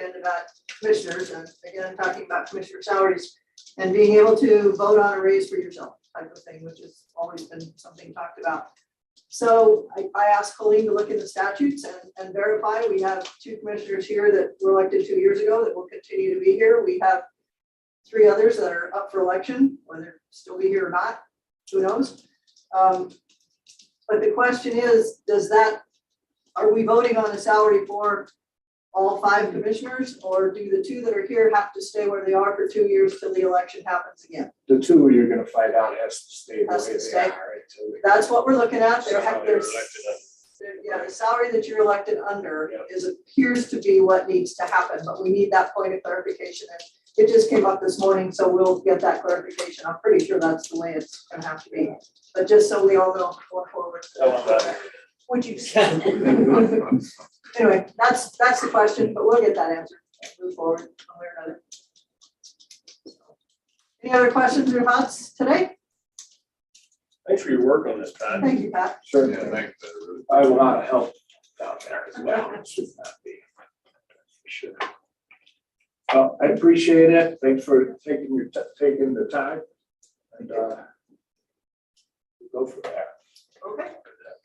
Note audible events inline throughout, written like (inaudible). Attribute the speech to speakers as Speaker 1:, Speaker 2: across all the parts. Speaker 1: and about commissioners, and again, I'm talking about commissioner salaries, and being able to vote on a raise for yourself type of thing, which has always been something talked about. So I, I asked Colleen to look in the statutes and, and verify, we have two commissioners here that were elected two years ago that will continue to be here, we have three others that are up for election, whether they'll still be here or not, who knows? Um, But the question is, does that, are we voting on the salary for all five commissioners, or do the two that are here have to stay where they are for two years till the election happens again?
Speaker 2: The two you're gonna find out has to stay the
Speaker 1: Has to
Speaker 2: way they
Speaker 1: stay.
Speaker 2: are until they.
Speaker 1: That's what we're looking at, they're,
Speaker 2: Salary
Speaker 1: they're.
Speaker 2: elected
Speaker 1: they're- Yeah, the salary that you're elected under
Speaker 2: Yep.
Speaker 1: is, appears to be what needs to happen, but we need that point of clarification, and it just came up this morning, so we'll get that clarification, I'm pretty sure that's the way it's gonna have to be, but just so we all know going forward.
Speaker 2: Tell them that.
Speaker 1: Would you? (laughs)
Speaker 2: (laughs)
Speaker 1: Anyway, that's, that's the question, but we'll get that answered, move forward one way or another. Any other questions or thoughts today?
Speaker 2: Thanks for your work on this, Todd.
Speaker 1: Thank you, Pat.
Speaker 2: Sure.
Speaker 3: Yeah, thank you.
Speaker 2: I have a lot of help down there as well. It should not be. Sure. Well, I appreciate it. Thanks for taking your, ti- taking the time. And, uh, go for that.
Speaker 1: Okay.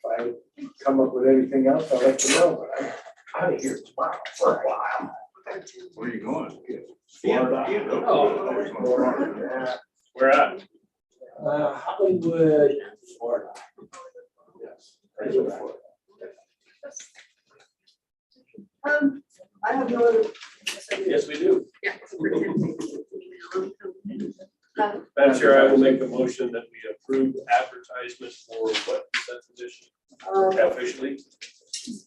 Speaker 2: If I come up with anything else, I'll let you know, but I'm out of here tomorrow for a while.
Speaker 3: Where are you going?
Speaker 2: Florida.
Speaker 3: Oh.
Speaker 4: Where at?
Speaker 2: Uh, Hollywood, Florida. Yes. Florida.
Speaker 1: Um, I have no other. yes, I do.
Speaker 4: Yes, we do.
Speaker 1: Um,
Speaker 4: Madam Chair, I will make a motion that we approve advertisement for what is that position officially?
Speaker 1: Um,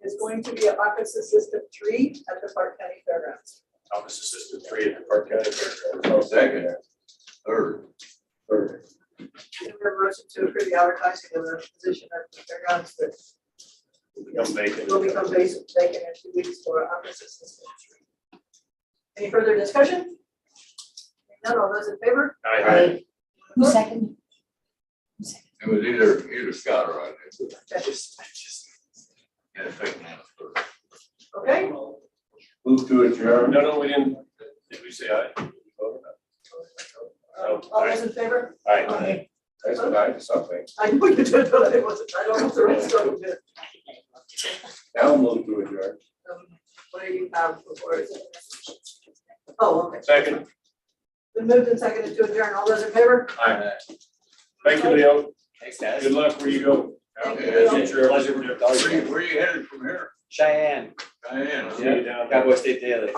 Speaker 1: It's going to be an office assistant three at the Park County Fairgrounds.
Speaker 4: Office Assistant Three at the Park County Fair.
Speaker 3: Second, third. Oh.
Speaker 4: Or
Speaker 1: We have a motion to approve the advertising of the position at the fairgrounds that
Speaker 4: Become vacant.
Speaker 1: will become vacant vacant in two weeks for office assistant three. Any further discussion? None, all those in favor?
Speaker 4: Aye.
Speaker 5: Who second?
Speaker 3: It was either, either Scott or I did.
Speaker 1: Yes.
Speaker 3: Yeah, second and third.
Speaker 1: Okay,
Speaker 3: Move to
Speaker 4: No,
Speaker 3: adjourn.
Speaker 4: no, we didn't. Did we say aye?
Speaker 1: all those in favor?
Speaker 4: Aye.
Speaker 2: That's what I, something.
Speaker 1: I know you did, but it wasn't, I don't know if the rest of them did.
Speaker 2: Now move to adjourn.
Speaker 1: Um, What do you have before? it? Oh, okay.
Speaker 4: Second.
Speaker 1: Been moved and seconded to adjourn. All those in favor?
Speaker 4: Aye. Thank you, Leo.
Speaker 6: Thanks,
Speaker 4: Good
Speaker 6: guys.
Speaker 4: luck where you go.
Speaker 1: Thank
Speaker 3: you, Leo.
Speaker 4: Future.
Speaker 6: Pleasure.
Speaker 3: Where you- Where you headed from here?
Speaker 6: Cheyenne,
Speaker 3: Diane? huh?
Speaker 4: See you down there.
Speaker 6: Cowboy State Daily.